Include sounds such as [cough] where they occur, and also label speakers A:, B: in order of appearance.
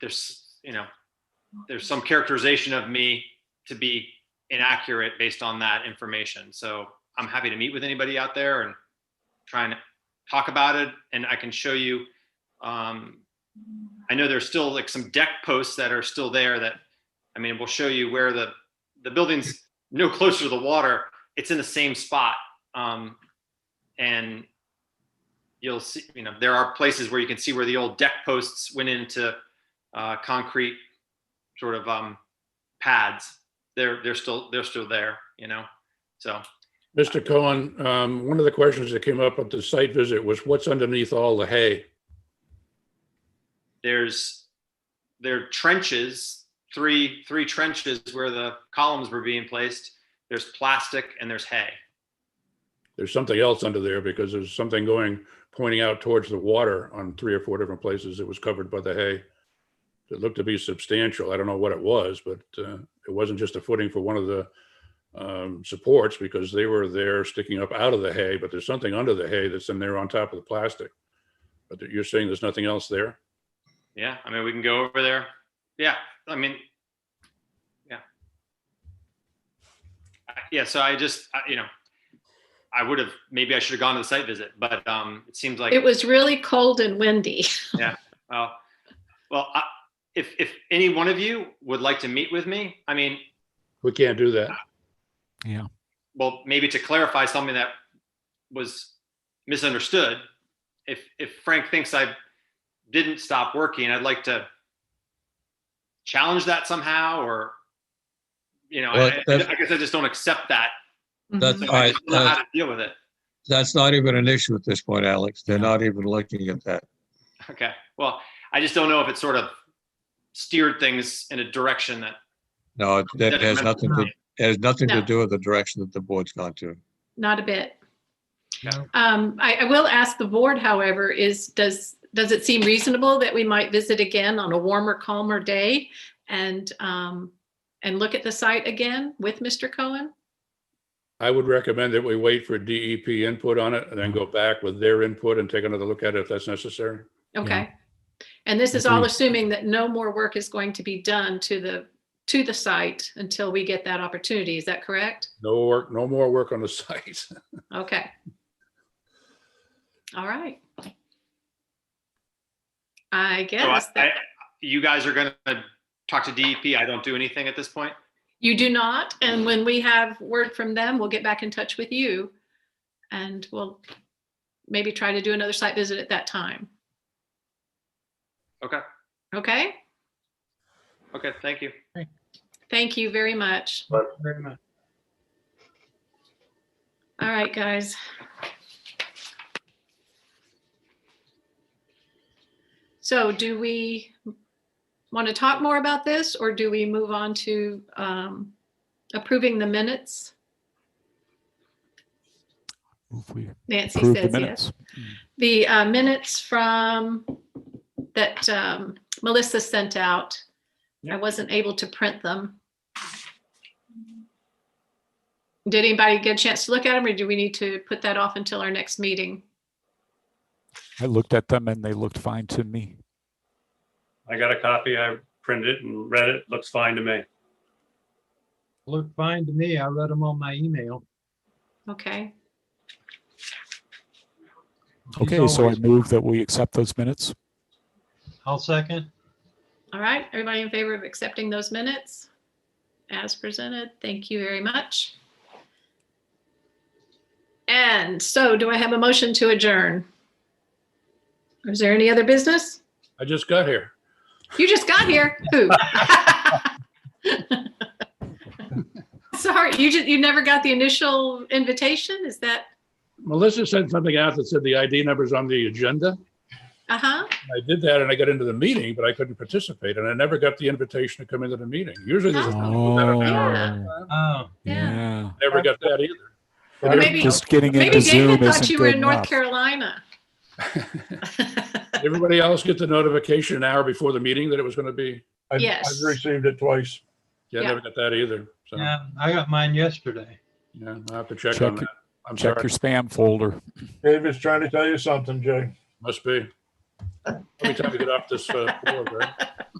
A: there's you know there's some characterization of me to be inaccurate based on that information. So I'm happy to meet with anybody out there and try and talk about it. And I can show you. Um, I know there's still like some deck posts that are still there that I mean we'll show you where the the building's no closer to the water. It's in the same spot. Um, and you'll see, you know, there are places where you can see where the old deck posts went into uh, concrete sort of um, pads. They're they're still they're still there, you know. So
B: Mr. Cohen, um, one of the questions that came up at the site visit was what's underneath all the hay?
A: there's there are trenches, three three trenches where the columns were being placed. There's plastic and there's hay.
B: There's something else under there because there's something going, pointing out towards the water on three or four different places. It was covered by the hay. It looked to be substantial. I don't know what it was, but uh, it wasn't just a footing for one of the um, supports because they were there sticking up out of the hay, but there's something under the hay that's in there on top of the plastic. But you're saying there's nothing else there?
A: Yeah, I mean we can go over there. Yeah, I mean, yeah, I- yeah. So I just I, you know, I would have maybe I should have gone to the site visit, but um, it seems like
C: It was really cold and windy.
A: Well, well, I, if if any one of you would like to meet with me, I mean,
B: We can't do that.
A: well, maybe to clarify something that was misunderstood. If if Frank thinks I didn't stop working, I'd like to challenge that somehow, or you know,
D: Well,
A: I, I
D: that's-
A: I guess I just don't accept that.
D: That's-
A: So
D: All
A: I
D: right,
A: just don't know how
D: uh,
A: to deal with it.
D: That's not even an issue at this point, Alex. They're not even looking at that.
A: Okay. Well, I just don't know if it sort of steered things in a direction that
D: No, it- that has
A: detrimental
D: nothing to, it has nothing to
C: No.
D: do with the direction that the board's gone to.
C: [laughs] Not a bit.
D: No.
C: Um, I, I will ask the board, however, is, does, does it seem reasonable that we might visit again on a warmer, calmer day? And, um, and look at the site again with Mr. Cohen?
B: I would recommend that we wait for DEP input on it and then go back with their input and take another look at it if that's necessary.
C: Okay. And this is all assuming that no more work is going to be done to the, to the site until we get that opportunity. Is that correct?
B: No work, no more work on the [laughs] site.
C: Okay. All right.
A: So
C: I
A: I-
C: guess
A: I-
C: that
A: you guys are gonna talk to DEP. I don't do anything at this point.
C: you do not. And when we have word from them, we'll get back in touch with you. And we'll maybe try to do another site visit at that time.
A: Okay.
C: Okay,
A: Okay, thank you.
C: thank you very much. All right, guys. So do we want to talk more about this or do we move on to um, approving the minutes?
E: Move we
C: Nancy
E: approve the
C: says yes.
E: minutes.
C: The uh, minutes from that um, Melissa sent out. I wasn't able to print them. Did anybody get a chance to look at them or do we need to put that off until our next meeting?
E: I looked at them and they looked fine to me.
F: I got a copy. I printed it and read it. Looks fine to me.
G: Looked fine to me. I read them on my email.
C: Okay,
G: She's
E: Okay, so I
G: always-
E: move that we accept those minutes.
G: I'll second.
C: all right. Everybody in favor of accepting those minutes as presented? Thank you very much. And so do I have a motion to adjourn? Is there any other business?
B: I just got here.
C: You just got here. Who? [laughs] Sorry, you just you never got the initial invitation? Is that
B: Melissa sent something out that said the ID number's on the agenda.
C: uh-huh?
B: I did that and I got into the meeting, but I couldn't participate and I never got the invitation to come into the meeting. Usually there's. a
C: yeah.
G: Oh,
E: Oh. yeah.
B: Never got that either.
C: Or maybe
E: Just getting
C: maybe
E: into Zoom
C: David thought
E: isn't
C: you were
E: good
C: in North
E: enough.
C: Carolina. [laughs]
B: Everybody else get the notification an hour before the meeting that it was going to be.
H: I've-
C: Yes.
H: I've received it twice.
B: Yeah, I
C: Yeah.
B: never got that either. So,
G: yeah. I got mine yesterday.
B: yeah, I'll have to check
E: Check
B: on
E: it.
B: that. I'm
E: Check
B: sorry,
E: your spam folder.
H: David's trying to tell you something, Jay.
B: must be. Every time we get off this, uh, floor, right?